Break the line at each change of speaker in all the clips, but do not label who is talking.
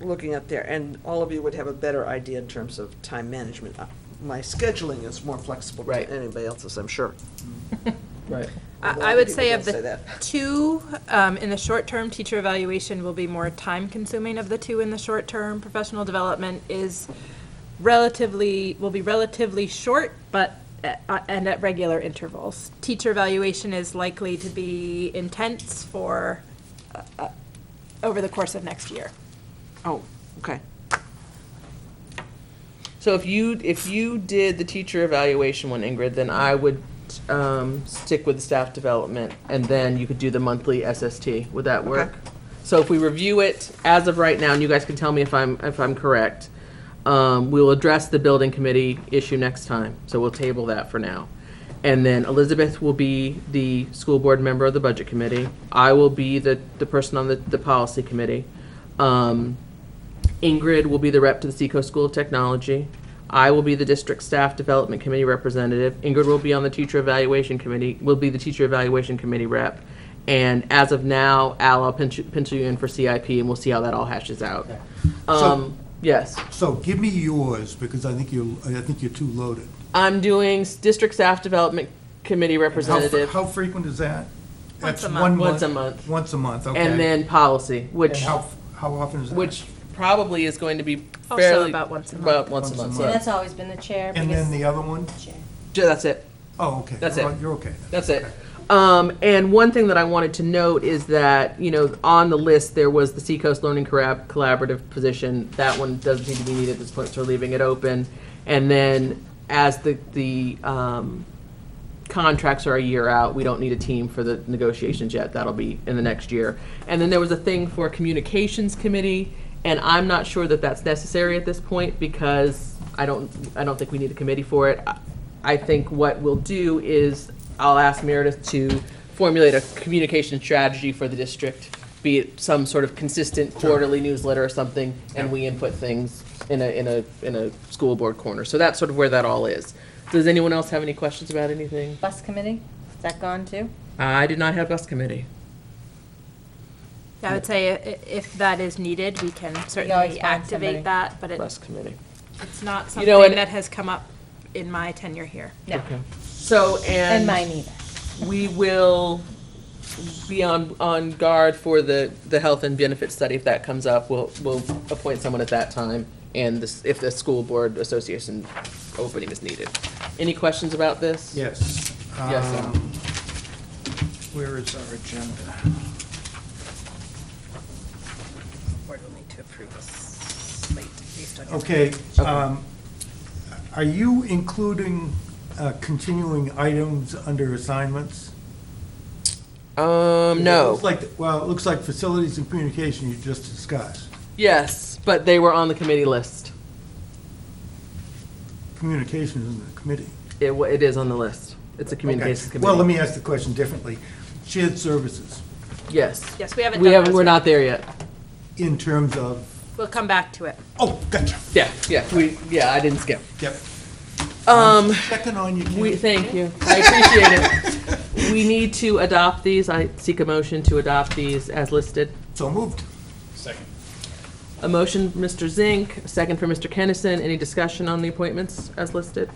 looking up there, and all of you would have a better idea in terms of time management. Uh, My scheduling is more flexible
Right.
to anybody else's, I'm sure. Well,
Right.
I, I would
people
say of
don't say
the
that.
two, um, in the short term, teacher evaluation will be more time consuming of the two in the short term. Professional development is relatively, will be relatively short, but, at- uh, and at regular intervals. Teacher evaluation is likely to be intense for, uh, uh, over the course of next year.
Oh, okay.
So if you, if you did the teacher evaluation one, Ingrid, then I would, um, stick with staff development, and then you could do the monthly SST. Would that work?
Okay.
So if we review it as of right now, and you guys can tell me if I'm, if I'm correct, um, we'll address the building committee issue next time, so we'll table that for now. And then Elizabeth will be the school board member of the budget committee. I will be the, the person on the, the policy committee. Um, Ingrid will be the rep to the Seacoast School of Technology. I will be the district staff development committee representative. Ingrid will be on the teacher evaluation committee, will be the teacher evaluation committee rep. And as of now, Al, I'll pinch- pencil you in for CIP and we'll see how that all hashes out. Um, yes,
So give me yours, because I think you're, I think you're too loaded.
I'm doing s- district staff development committee
How fre-
representative
How frequent is that? That's
a month.
one
Once a month.
Once a month, okay.
and then policy,
And
which,
how, f- how often is that?
which probably is going to be
Also
fairly.
about once a month.
About once a month,
So
so-
that's always been the chair
And
because
then the other one?
chair.
Ju- that's it.
Oh, okay.
That's
You're
it.
on- You're okay. then.
That's it. Um, and one thing that I wanted to note is that, you know, on the list, there was the Seacoast Learning Corrab- Collaborative position. That one doesn't seem to be needed at this point, so we're leaving it open. And then as the, the, um, contracts are a year out, we don't need a team for the negotiations yet, that'll be in the next year. And then there was a thing for communications committee, and I'm not sure that that's necessary at this point, because I don't, I don't think we need a committee for it. I- I think what we'll do is, I'll ask Meredith to formulate a communication strategy for the district, be it some sort of consistent quarterly newsletter or something, and we input things in a, in a, in a school board corner. So that's sort of where that all is. Does anyone else have any questions about anything?
Bus committee, is that gone too?
I do not have bus committee.
I would say uh, i- if that is needed, we can
always
certainly
find somebody.
activate that, but it,
Bus committee.
it's not
You know,
something
and-
that has come up in my tenure here.
No,
So,
and
and
mine either.
we will be on, on guard for the, the health and benefit study. If that comes up, we'll, we'll appoint someone at that time and this, if the school board association opening is needed. Any questions about this?
Yes.
Yes, sir.
Um, Where is our agenda?
board will need to approve a slate based on your
Okay, um, are you including uh, continuing items under assignments?
Um,
It
no.
looks like, well, it looks like facilities and communication you just discussed.
Yes, but they were on the committee list.
Communication is in the committee.
It, wa- it is on the list. It's a communications
Okay.
committee.
Well, let me ask the question differently. Shared services,
Yes.
Yes, we haven't
We
done
haven't,
those
we're
yet.
not there yet.
in terms of,
We'll come back to it.
oh, gotcha,
Yeah, yeah, we, yeah, I didn't skip.
yep.
Um,
Checking on you,
we,
Kim.
thank you. I appreciate it. We need to adopt these. I seek a motion to adopt these as listed.
So moved.
A motion, Mr. Zink, a second for Mr. Kennison. Any discussion on the appointments as listed?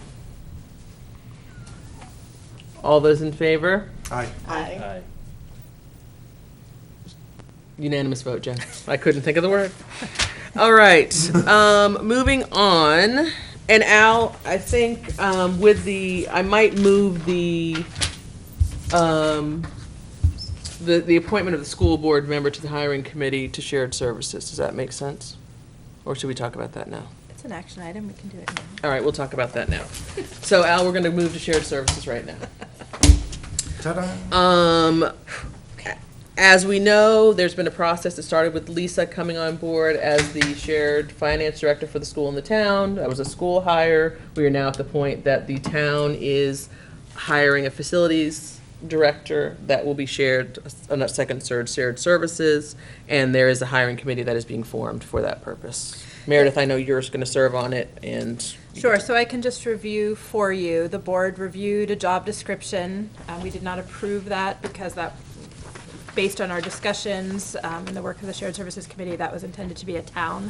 All those in favor?
Aye.
Unanimous vote, Jen. I couldn't think of the word. All right, um, moving on. And Al, I think, um, with the, I might move the, um, the, the appointment of the school board member to the hiring committee to shared services. Does that make sense? Or should we talk about that now?
It's an action item, we can do it now.
All right, we'll talk about that now. So Al, we're gonna move to shared services right now.
Ta-da.
Um, as we know, there's been a process that started with Lisa coming on board as the shared finance director for the school in the town. That was a school hire. We are now at the point that the town is hiring a facilities director that will be shared, a second surge shared services, and there is a hiring committee that is being formed for that purpose. Meredith, I know you're going to serve on it, and
Sure, so I can just review for you. The board reviewed a job description. Uh, We did not approve that because that, based on our discussions um, and the work of the Shared Services Committee, that was intended to be a town